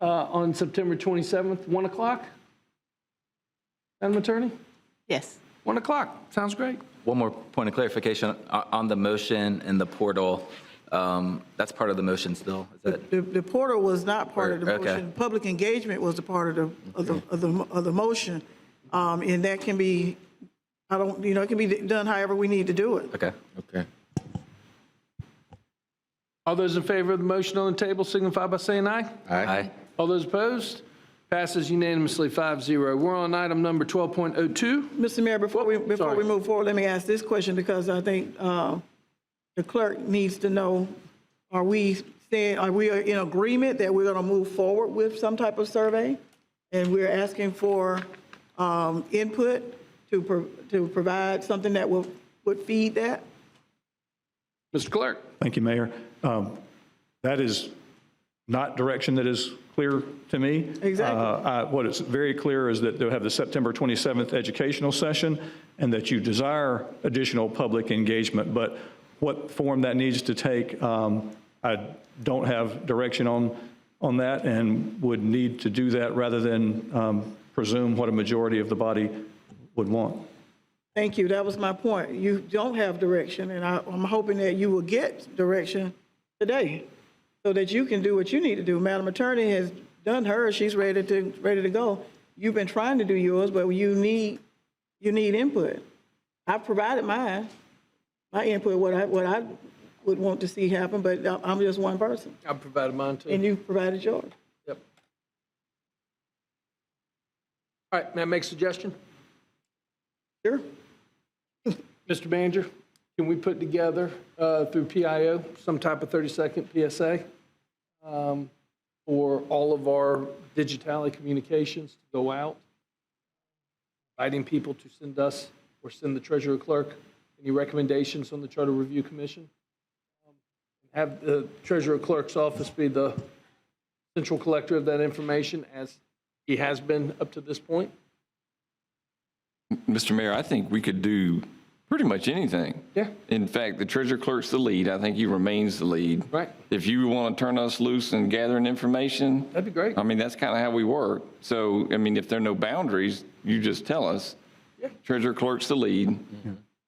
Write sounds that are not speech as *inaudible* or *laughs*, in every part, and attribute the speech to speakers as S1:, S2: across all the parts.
S1: uh, on September 27th, 1 o'clock? Madam Attorney?
S2: Yes.
S1: 1 o'clock, sounds great.
S3: One more point of clarification o- on the motion and the portal. um, That's part of the motion still, is it?
S2: The, the portal was not part of the
S3: Okay.
S2: motion. Public engagement was a part of the, of the, of the, of the motion. Um, and that can be, I don't, you know, it can be done however we need to do it.
S3: Okay.
S4: Okay.
S1: All those in favor of the motion on the table signify by saying aye.
S3: Aye.
S1: All those opposed? Passes unanimously 5-0. We're on item number 12.02.
S2: Mr. Mayor, before we, before we
S1: sorry.
S2: move forward, let me ask this question because I think uh, the clerk needs to know, are we saying, are we in agreement that we're going to move forward with some type of survey? And we're asking for um, input to, pro- to provide something that will, would feed that?
S1: Mr. Clerk?
S5: Thank you, Mayor. Um, That is not direction that is clear to me.
S2: Exactly.
S5: Uh, I- What is very clear is that they'll have the September 27th educational session and that you desire additional public engagement, but what form that needs to take, um, I don't have direction on, on that and would need to do that rather than um, presume what a majority of the body would want.
S2: Thank you, that was my point. You don't have direction, and I, I'm hoping that you will get direction today so that you can do what you need to do. Madam Attorney has done hers, she's ready to, ready to go. You've been trying to do yours, but you need, you need input. I've provided mine, my input, what I, what I would want to see happen, but I- I'm just one person,
S1: I provided mine too.
S2: and you provided yours.
S1: Yep. All right, may I make a suggestion? *laughs*
S2: Sure?
S1: Mr. Manager, can we put together uh, through PIO some type of 30-second PSA um, for all of our digitally communications to go out? Inviting people to send us or send the treasurer clerk any recommendations on the Charter Review Commission? Um, Have the treasurer clerk's office be the central collector of that information as he has been up to this point?
S4: Mr. Mayor, I think we could do pretty much anything.
S1: Yeah.
S4: In fact, the treasurer clerk's the lead. I think he remains the lead.
S1: Right.
S4: If you want to turn us loose and gathering information.
S1: That'd be great.
S4: I mean, that's kind of how we work. So, I mean, if there are no boundaries, you just tell us. Treasurer clerk's the lead.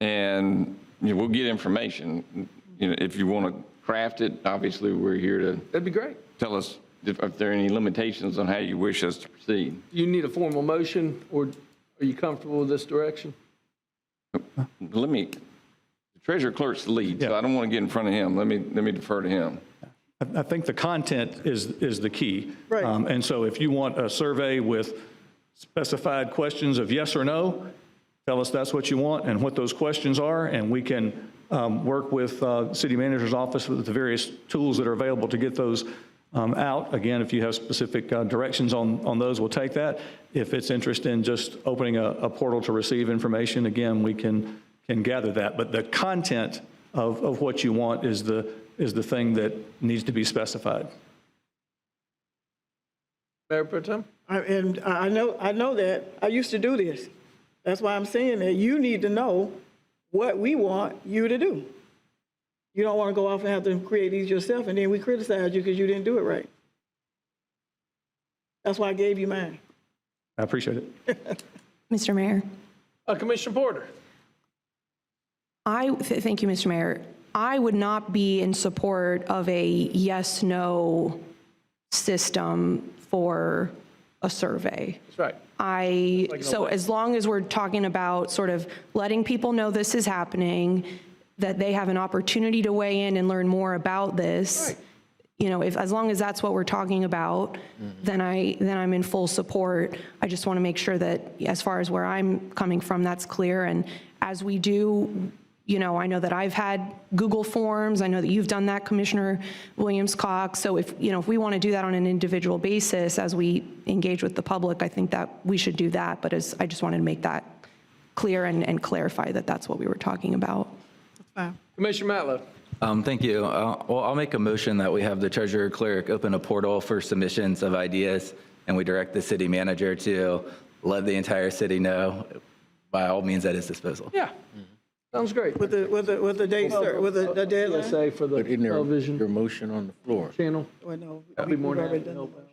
S4: And, you know, we'll get information. You know, if you want to craft it, obviously, we're here to
S1: That'd be great.
S4: tell us if, if there are any limitations on how you wish us to proceed.
S1: Do you need a formal motion, or are you comfortable with this direction?
S4: Let me, the treasurer clerk's the lead, so I don't want to get in front of him. Let me, let me defer to him.
S5: I- I think the content is, is the key.
S2: Right.
S5: Um, And so if you want a survey with specified questions of yes or no, tell us that's what you want and what those questions are, and we can um, work with uh, city manager's office with the various tools that are available to get those um, out. Again, if you have specific uh, directions on, on those, we'll take that. If it's interest in just opening a, a portal to receive information, again, we can, can gather that. But the content of, of what you want is the, is the thing that needs to be specified.
S1: Mayor Pro Tem?
S2: I- And I I know, I know that, I used to do this. That's why I'm saying that you need to know what we want you to do. You don't want to go off and have to create these yourself, and then we criticize you because you didn't do it right. That's why I gave you mine.
S5: I appreciate it.
S6: Mr. Mayor,
S1: Uh, Commissioner Porter?
S6: I, th- thank you, Mr. Mayor. I would not be in support of a yes/no system for a survey.
S1: That's right.
S6: I, so as long as we're talking about sort of letting people know this is happening, that they have an opportunity to weigh in and learn more about this, you know, if, as long as that's what we're talking about, then I, then I'm in full support. I just want to make sure that as far as where I'm coming from, that's clear. And as we do, you know, I know that I've had Google Forms, I know that you've done that, Commissioner Williams-Cox. So if, you know, if we want to do that on an individual basis as we engage with the public, I think that we should do that. But as, I just wanted to make that clear and, and clarify that that's what we were talking about.
S1: Commissioner Matlow?
S3: Um, Thank you. Uh, Well, I'll make a motion that we have the treasurer clerk open a portal for submissions of ideas, and we direct the city manager to let the entire city know by all means at his disposal.
S1: Yeah. Mm-hmm. Sounds great.
S2: With the, with the, with the date, cer- with
S1: uh,
S2: the the deadline.
S1: PSA for the
S7: But isn't there,
S1: television
S7: your motion on the floor?
S1: channel.
S2: Well, no,
S1: I'd be
S2: we've
S1: more than
S2: already
S1: happy to
S2: done
S1: help
S2: that.
S1: out.